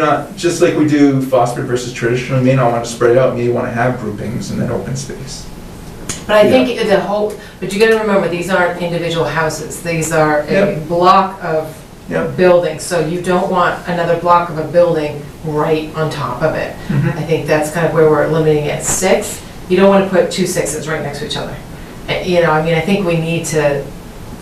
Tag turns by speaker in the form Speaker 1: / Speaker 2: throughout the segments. Speaker 1: Not, just like we do phosphid versus traditional, you may not want to spread out, you may want to have groupings in that open space.
Speaker 2: But I think the whole, but you gotta remember, these aren't individual houses, these are a
Speaker 1: Yep.
Speaker 2: block of
Speaker 1: Yep.
Speaker 2: buildings, so you don't want another block of a building right on top of it.
Speaker 1: mm-hmm.
Speaker 2: I think that's kind of where we're limiting it, six, you don't wanna put two sixes right next to each other. Uh, You know, I mean, I think we need to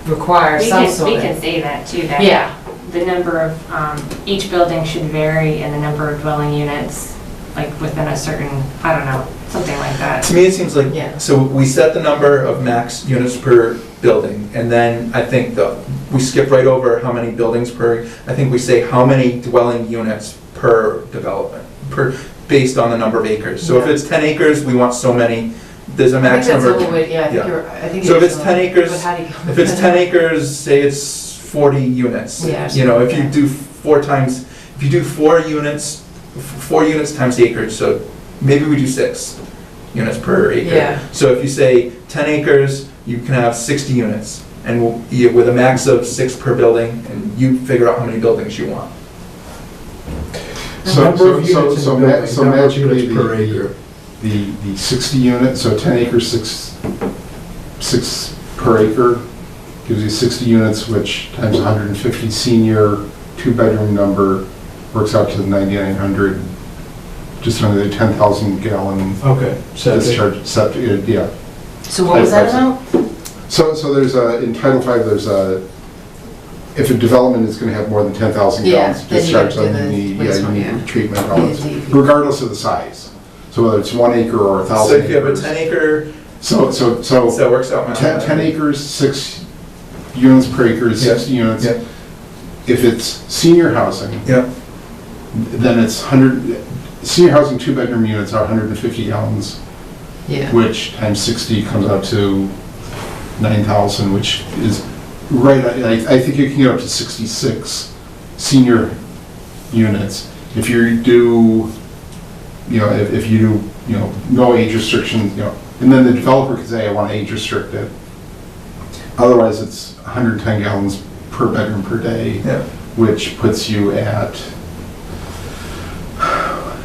Speaker 2: require
Speaker 3: We
Speaker 2: some
Speaker 3: can, we
Speaker 2: sort
Speaker 3: can
Speaker 2: of,
Speaker 3: say that too, that
Speaker 2: yeah,
Speaker 3: the number of, um, each building should vary and the number of dwelling units, like within a certain, I don't know, something like that.
Speaker 1: To me, it seems
Speaker 2: Yeah.
Speaker 1: like, so we set the number of max units per building, and then I think the, we skip right over how many buildings per, I think we say how many dwelling units per development, per, based on the number of acres. So if
Speaker 2: Yeah.
Speaker 1: it's 10 acres, we want so many, there's a
Speaker 2: I think
Speaker 1: max
Speaker 2: that's a
Speaker 1: number.
Speaker 2: little bit, yeah, I
Speaker 1: yeah.
Speaker 2: think you're, I think.
Speaker 1: So
Speaker 2: it
Speaker 1: if
Speaker 2: is
Speaker 1: it's
Speaker 2: a
Speaker 1: 10
Speaker 2: little-
Speaker 1: acres,
Speaker 2: but how do you-
Speaker 1: If it's 10 acres, say it's 40 units.
Speaker 2: Yeah.
Speaker 1: You know, if you do four times, if you do four units, f- four units times acreage, so maybe we do six units per acre.
Speaker 2: Yeah.
Speaker 1: So if you say 10 acres, you can have 60 units, and we'll- you- with a max of six per building, and you figure out how many buildings you want.
Speaker 4: So,
Speaker 5: Number
Speaker 4: so,
Speaker 5: of
Speaker 4: so,
Speaker 5: units in
Speaker 4: so
Speaker 5: a
Speaker 4: ma-
Speaker 5: building,
Speaker 4: so
Speaker 5: number of
Speaker 4: magically
Speaker 5: units per
Speaker 4: the,
Speaker 5: acre.
Speaker 4: the, the sixty unit, so ten acres, six, six per acre, gives you sixty units, which times hundred and fifty senior, two-bedroom number, works out to ninety-nine hundred, just under the ten thousand gallon
Speaker 5: Okay, septic.
Speaker 4: discharge, septic, yeah.
Speaker 2: So what was that
Speaker 4: Five
Speaker 2: amount?
Speaker 4: So, so there's a, in Title V, there's a, if a development is gonna have more than ten thousand
Speaker 2: Yeah,
Speaker 4: gallons
Speaker 2: then you
Speaker 4: discharged,
Speaker 2: gotta do
Speaker 4: then you
Speaker 2: the
Speaker 4: need, yeah,
Speaker 2: wastewater,
Speaker 4: you
Speaker 2: yeah.
Speaker 4: need treatment, and all
Speaker 2: Yeah,
Speaker 4: that stuff,
Speaker 2: DEP.
Speaker 4: regardless of the size. So whether it's one acre or a
Speaker 1: So
Speaker 4: thousand
Speaker 1: if you have a
Speaker 4: acres.
Speaker 1: 10 acre,
Speaker 4: So, so,
Speaker 1: so
Speaker 4: so,
Speaker 1: that works out. my-
Speaker 4: ten, ten acres, six units per acre is
Speaker 1: Yeah,
Speaker 4: sixty units.
Speaker 1: yeah.
Speaker 4: If it's senior housing,
Speaker 1: Yep,
Speaker 4: then it's hundred, senior housing two-bedroom units are hundred and fifty gallons
Speaker 2: Yeah.
Speaker 4: which times 60 comes out to 9,000, which is right, I, I think you can get up to 66 senior units. If you do, you know, if, if you do, you know, no age restrictions, you know, and then the developer could say, I want to age restrict it. Otherwise, it's 110 gallons per bedroom per day,
Speaker 1: yeah.
Speaker 4: which puts you at,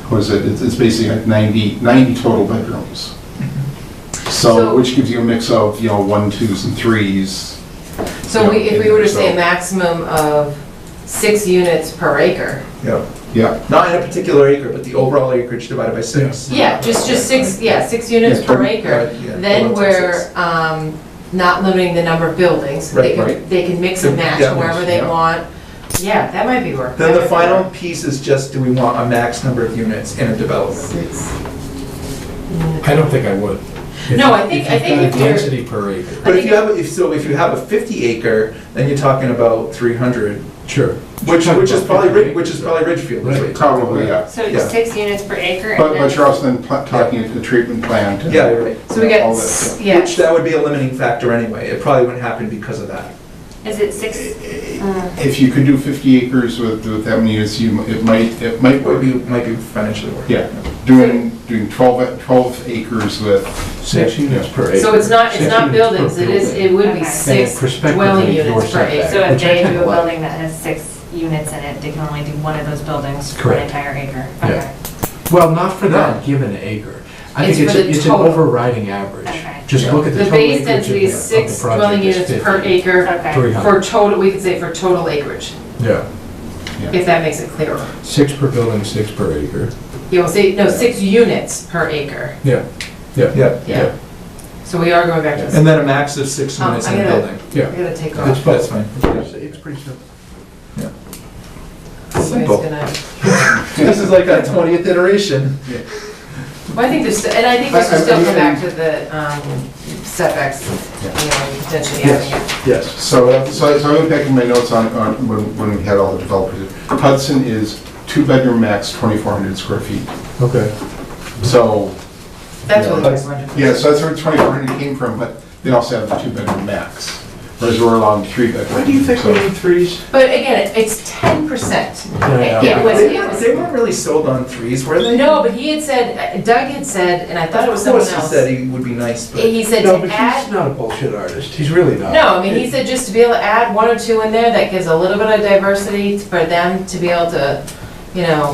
Speaker 4: what is it, It's- it's basically like 90, 90 total bedrooms.
Speaker 2: So-
Speaker 4: So, which gives you a mix of, you know, one, twos, and threes.
Speaker 2: So we, if we were to say a
Speaker 4: So-
Speaker 2: maximum of six units per acre,
Speaker 1: Yeah,
Speaker 4: Yeah.
Speaker 1: not in a particular acre, but the overall acreage divided by six.
Speaker 2: yeah, just, just six, yeah, six units
Speaker 4: Yeah,
Speaker 2: per
Speaker 4: per-
Speaker 2: acre,
Speaker 1: Right, yeah,
Speaker 2: then
Speaker 1: overall six.
Speaker 2: we're, um, not limiting the number of buildings. They
Speaker 1: Right,
Speaker 2: can,
Speaker 1: right.
Speaker 2: they can mix and match
Speaker 1: Yeah,
Speaker 2: wherever they
Speaker 4: yeah.
Speaker 2: want. Yeah, that might be work.
Speaker 1: Then
Speaker 2: That
Speaker 1: the
Speaker 2: might be
Speaker 1: final
Speaker 2: work.
Speaker 1: piece is just, do we want a max number of units in a development?
Speaker 2: Six.
Speaker 5: I don't think I would. If-
Speaker 2: No, I think- I think
Speaker 5: you've
Speaker 2: if
Speaker 5: got a
Speaker 2: you're-
Speaker 5: Density per acre.
Speaker 1: But if you have, if, so if you have a fifty acre, then you're talking about three hundrid,
Speaker 5: Sure.
Speaker 1: which, which is probably, Rid- which is probably Ridgefield. is what you're talking
Speaker 4: Probably, yeah.
Speaker 3: So
Speaker 1: Yeah.
Speaker 3: it's six units per acre?
Speaker 4: But,
Speaker 3: and
Speaker 4: but
Speaker 3: then-
Speaker 4: you're also then pl- talking at the treatment plant.
Speaker 1: about.
Speaker 4: and
Speaker 1: Yeah, you're right.
Speaker 2: So we got,
Speaker 4: all that
Speaker 2: s-
Speaker 4: stuff.
Speaker 2: yeah,
Speaker 1: Which, that would be a limiting factor anyway, it probably wouldn't happen because of that.
Speaker 3: Is it six? uh,
Speaker 4: If you could do 50 acres with, with that many units, you, m- it might, it might
Speaker 1: It would
Speaker 4: work.
Speaker 1: be, might be financially worth it.
Speaker 4: Yeah, doing, doing 12, a- 12 acres with,
Speaker 5: Six units per acre.
Speaker 2: so it's not, it's
Speaker 5: Six
Speaker 2: not
Speaker 5: units per
Speaker 2: buildings, it is,
Speaker 5: building.
Speaker 2: it would be
Speaker 3: Okay.
Speaker 2: six
Speaker 5: And perspective
Speaker 2: dwelling
Speaker 5: of your
Speaker 2: units per
Speaker 5: setback.
Speaker 2: acre.
Speaker 3: So if they do a
Speaker 5: What?
Speaker 3: building that has six units in it, they can only do one of those buildings for an
Speaker 5: Correct.
Speaker 3: entire acre?
Speaker 5: Yeah.
Speaker 3: Okay.
Speaker 5: Well, not for that given acre. I
Speaker 2: It's
Speaker 5: think it's,
Speaker 2: for the
Speaker 5: a- it's an
Speaker 2: total.
Speaker 5: overriding average.
Speaker 3: Okay.
Speaker 5: Just look at the
Speaker 2: The
Speaker 5: total acreage
Speaker 2: base
Speaker 5: of the of
Speaker 2: density is
Speaker 5: the
Speaker 2: six dwelling
Speaker 5: project is
Speaker 2: units per
Speaker 5: 50.
Speaker 2: acre
Speaker 3: Okay.
Speaker 5: Three
Speaker 2: for
Speaker 5: hundred.
Speaker 2: total, we could say for total acreage,
Speaker 5: Yeah,
Speaker 2: if that makes it clearer.
Speaker 5: six per building, six per acre.
Speaker 2: You will say, no, six units per acre,
Speaker 5: Yeah, yeah,
Speaker 1: Yeah,
Speaker 2: yeah. So we are going back to,
Speaker 1: and then a max of six
Speaker 2: Um,
Speaker 1: units
Speaker 2: I
Speaker 1: in a
Speaker 2: gotta-
Speaker 1: building.
Speaker 2: we're
Speaker 5: yeah.
Speaker 2: gonna take
Speaker 1: That's
Speaker 2: off.
Speaker 1: that's fine.
Speaker 5: It's pretty simple.
Speaker 2: Somebody's
Speaker 1: simple.
Speaker 2: gonna-
Speaker 1: This is like our twentieth iteration.
Speaker 2: Well, I think there's, and I think we
Speaker 4: I-
Speaker 2: should
Speaker 4: I-
Speaker 2: still
Speaker 4: I-
Speaker 2: come back to the um, setbacks, you know, potentially
Speaker 5: Yes.
Speaker 2: having it.
Speaker 5: Yes.
Speaker 4: so, uh, so so I went back in my notes on, on, when, when we had all the developers. Hudson is two-bedroom max, 2,400 square feet.
Speaker 5: Okay.
Speaker 4: So,
Speaker 2: That's what
Speaker 4: Yeah.
Speaker 2: I was wondering.
Speaker 4: Yeah, so that's where 2,400 came from, but they also have the two-bedroom max, whereas we're allowed three bedrooms. so-
Speaker 5: threes?
Speaker 2: But again, it- it's ten percent.
Speaker 5: Yeah,
Speaker 2: It
Speaker 5: yeah.
Speaker 2: it was,
Speaker 1: They
Speaker 2: it
Speaker 1: weren't,
Speaker 2: was,
Speaker 1: they weren't really sold on threes, were they?
Speaker 2: no, but he had said, Doug had said, and I thought it was
Speaker 1: Of
Speaker 2: someone
Speaker 1: course he
Speaker 2: else.
Speaker 1: said he would be nice, but.
Speaker 2: He said
Speaker 5: No,
Speaker 2: to
Speaker 5: but
Speaker 2: add,
Speaker 5: he's not a bullshit artist. He's really not.
Speaker 2: no, I mean, he said just to be able to add one or two in there, that gives a little bit of diversity for them to be able to, you know,